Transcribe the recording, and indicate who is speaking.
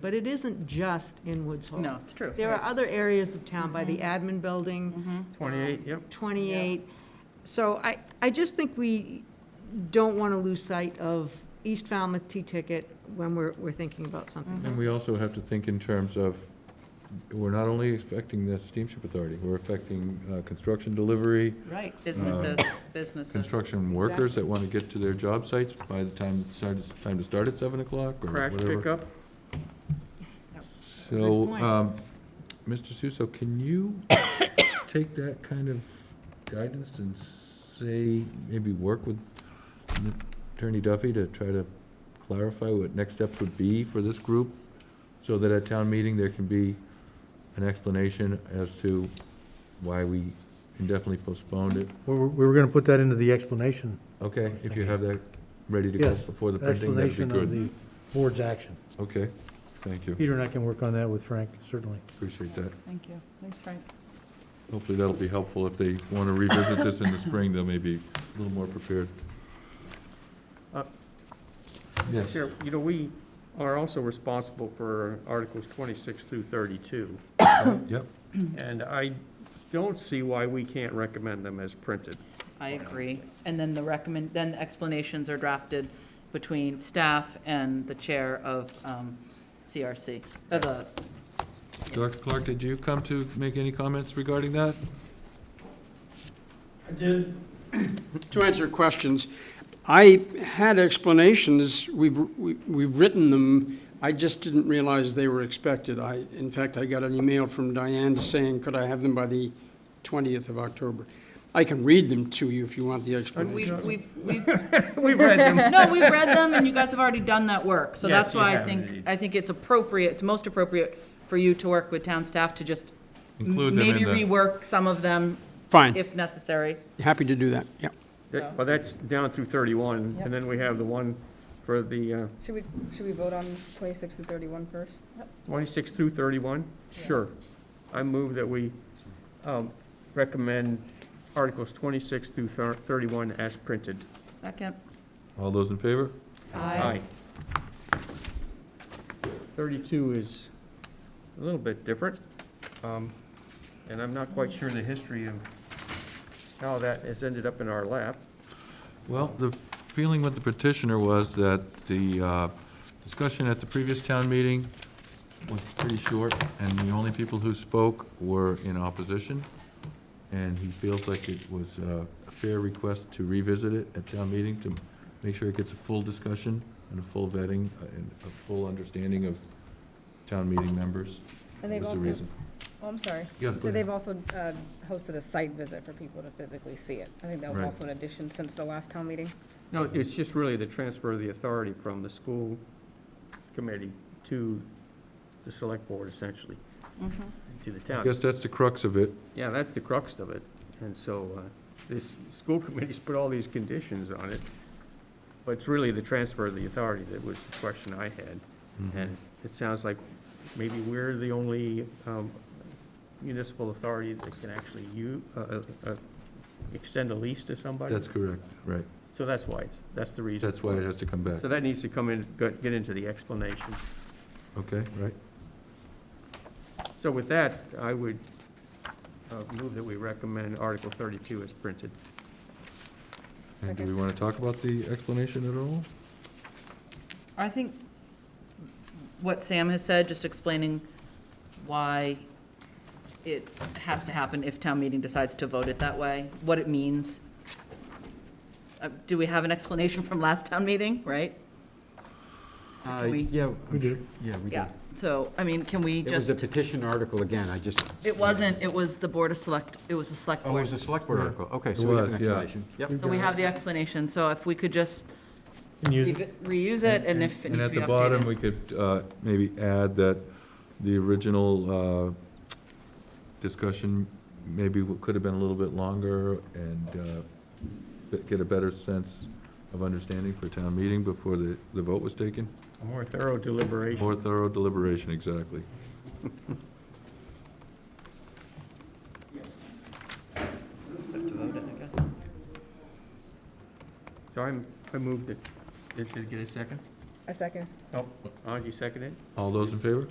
Speaker 1: But it isn't just in Woods Hole.
Speaker 2: Oh.
Speaker 3: No, it's true.
Speaker 1: There are other areas of town, by the admin building,
Speaker 3: Mm-hmm.
Speaker 1: Um,
Speaker 2: Twenty-eight, yep.
Speaker 1: 28. So I, I just think we don't want to lose sight of East Falmouth T-Ticket when we're, we're thinking about something.
Speaker 4: And we also have to think in terms of, we're not only affecting the steamship authority, we're affecting uh, construction delivery,
Speaker 3: Right, businesses, businesses.
Speaker 4: construction workers that want to get to their job sites by the time, it starts- time to start at seven o'clock or
Speaker 2: Crash
Speaker 4: whatever.
Speaker 2: pickup,
Speaker 1: Good
Speaker 4: So,
Speaker 1: point.
Speaker 4: um, Mr. Suso, can you take that kind of guidance and say, maybe work with Attorney Duffy to try to clarify what next steps would be for this group? So that at town meeting, there can be an explanation as to why we indefinitely postponed it?
Speaker 5: We were, we were gonna put that into the explanation,
Speaker 4: Okay, if you have that ready to go
Speaker 5: Yes,
Speaker 4: before the printing, that'd be
Speaker 5: explanation of
Speaker 4: good.
Speaker 5: the board's action.
Speaker 4: Okay, thank you,
Speaker 5: Peter and I can work on that with Frank, certainly.
Speaker 4: appreciate that.
Speaker 3: Thank you. Thanks, Frank.
Speaker 4: Hopefully that'll be helpful. If they want to revisit this in the spring, they'll maybe be a little more prepared.
Speaker 2: Uh,
Speaker 4: Yes,
Speaker 2: Chair, you know, we are also responsible for Articles twenty-six through thirty-two,
Speaker 4: yep,
Speaker 2: and I don't see why we can't recommend them as printed.
Speaker 3: I agree. And then the recommend, then the explanations are drafted between staff and the chair of um, CRC, of Uh, the.
Speaker 4: Dr. Clark, did you come to make any comments regarding that?
Speaker 6: To answer questions, I had explanations, we've, we- we've written them, I just didn't realize they were expected. I, in fact, I got an email from Diane saying, could I have them by the 20th of October? I can read them to you if you want the
Speaker 3: We've,
Speaker 6: explanation.
Speaker 3: we've, we've,
Speaker 2: We've read them.
Speaker 3: no, we've read them and you guys have already done that work. So
Speaker 2: Yes,
Speaker 3: that's
Speaker 2: you
Speaker 3: why I
Speaker 2: have
Speaker 3: think,
Speaker 2: indeed.
Speaker 3: I think it's appropriate, it's most appropriate for you to work with town staff to just
Speaker 4: Include them
Speaker 3: maybe
Speaker 4: in the,
Speaker 3: rework some of them
Speaker 6: Fine,
Speaker 3: if necessary.
Speaker 6: happy to do that, yeah.
Speaker 2: Yeah, Well, that's down through thirty-one, and then we have the one for the uh,
Speaker 7: Should we, should we vote on 26 and 31 first?
Speaker 2: twenty-six through thirty-one? Sure. I move that we um, recommend Articles twenty-six through thir- thirty-one as printed.
Speaker 3: Second.
Speaker 4: all those in favor?
Speaker 2: Aye. Thirty-two is a little bit different, um, and I'm not quite sure the history of how that has ended up in our lap.
Speaker 4: Well, the feeling with the petitioner was that the uh, discussion at the previous town meeting was pretty short, and the only people who spoke were in opposition, and he feels like it was uh, a fair request to revisit it at town meeting to make sure it gets a full discussion and a full vetting uh, and a full understanding of town meeting members.
Speaker 7: And they've
Speaker 4: was the
Speaker 7: also-
Speaker 4: reason.
Speaker 7: Oh, I'm sorry.
Speaker 4: Yeah, go
Speaker 7: So
Speaker 4: ahead.
Speaker 7: they've also uh, hosted a site visit for people to physically see it. I think that was
Speaker 4: Right.
Speaker 7: also an addition since the last town meeting.
Speaker 2: No, it's just really the transfer of the authority from the school committee to the select board essentially,
Speaker 3: Mm-hmm.
Speaker 2: to the
Speaker 4: I
Speaker 2: town.
Speaker 4: guess that's the crux of it.
Speaker 2: Yeah, that's the crux of it, and so, uh, this, school committee's put all these conditions on it, but it's really the transfer of the authority that was the question I had.
Speaker 4: Mm-hmm.
Speaker 2: And it sounds like maybe we're the only um, municipal authority that can actually you, uh, extend a lease to somebody.
Speaker 4: That's correct, right.
Speaker 2: So that's why it's, that's the reason.
Speaker 4: That's why it has to come back,
Speaker 2: So that needs to come in, go- get into the explanation.
Speaker 4: okay, right?
Speaker 2: So with that, I would uh, move that we recommend Article 32 as printed.
Speaker 4: And do we want to talk about the explanation at all?
Speaker 3: I think what Sam has said, just explaining why it has to happen if town meeting decides to vote it that way, what it means. Uh, Do we have an explanation from last town meeting, right? So
Speaker 8: Uh,
Speaker 3: can we-
Speaker 8: Yeah.
Speaker 5: We did.
Speaker 8: Yeah, we did.
Speaker 3: Yeah, so, I mean, can we
Speaker 8: It was a
Speaker 3: just,
Speaker 8: petition article again, I just.
Speaker 3: it wasn't, it was the Board of Select, it was the Select
Speaker 8: Oh, it was
Speaker 3: Board.
Speaker 8: a select board article, okay,
Speaker 4: It
Speaker 8: so we have an
Speaker 4: was, yeah.
Speaker 8: explanation. Yep.
Speaker 3: So we have the explanation, so if we could just
Speaker 5: Can you-
Speaker 3: re- reuse it and if it
Speaker 4: And
Speaker 3: needs to
Speaker 4: at
Speaker 3: be
Speaker 4: the bottom,
Speaker 3: updated.
Speaker 4: we could uh, maybe add that the original uh, discussion maybe w- could have been a little bit longer and uh, b- get a better sense of understanding for town meeting before the, the vote was taken.
Speaker 2: More thorough deliberation.
Speaker 4: More thorough deliberation, exactly.
Speaker 3: Have to vote it, I guess.
Speaker 2: So I'm, I moved it. Did did it get a second?
Speaker 9: A second.
Speaker 10: Oh, Angie seconded?
Speaker 2: All those in favor?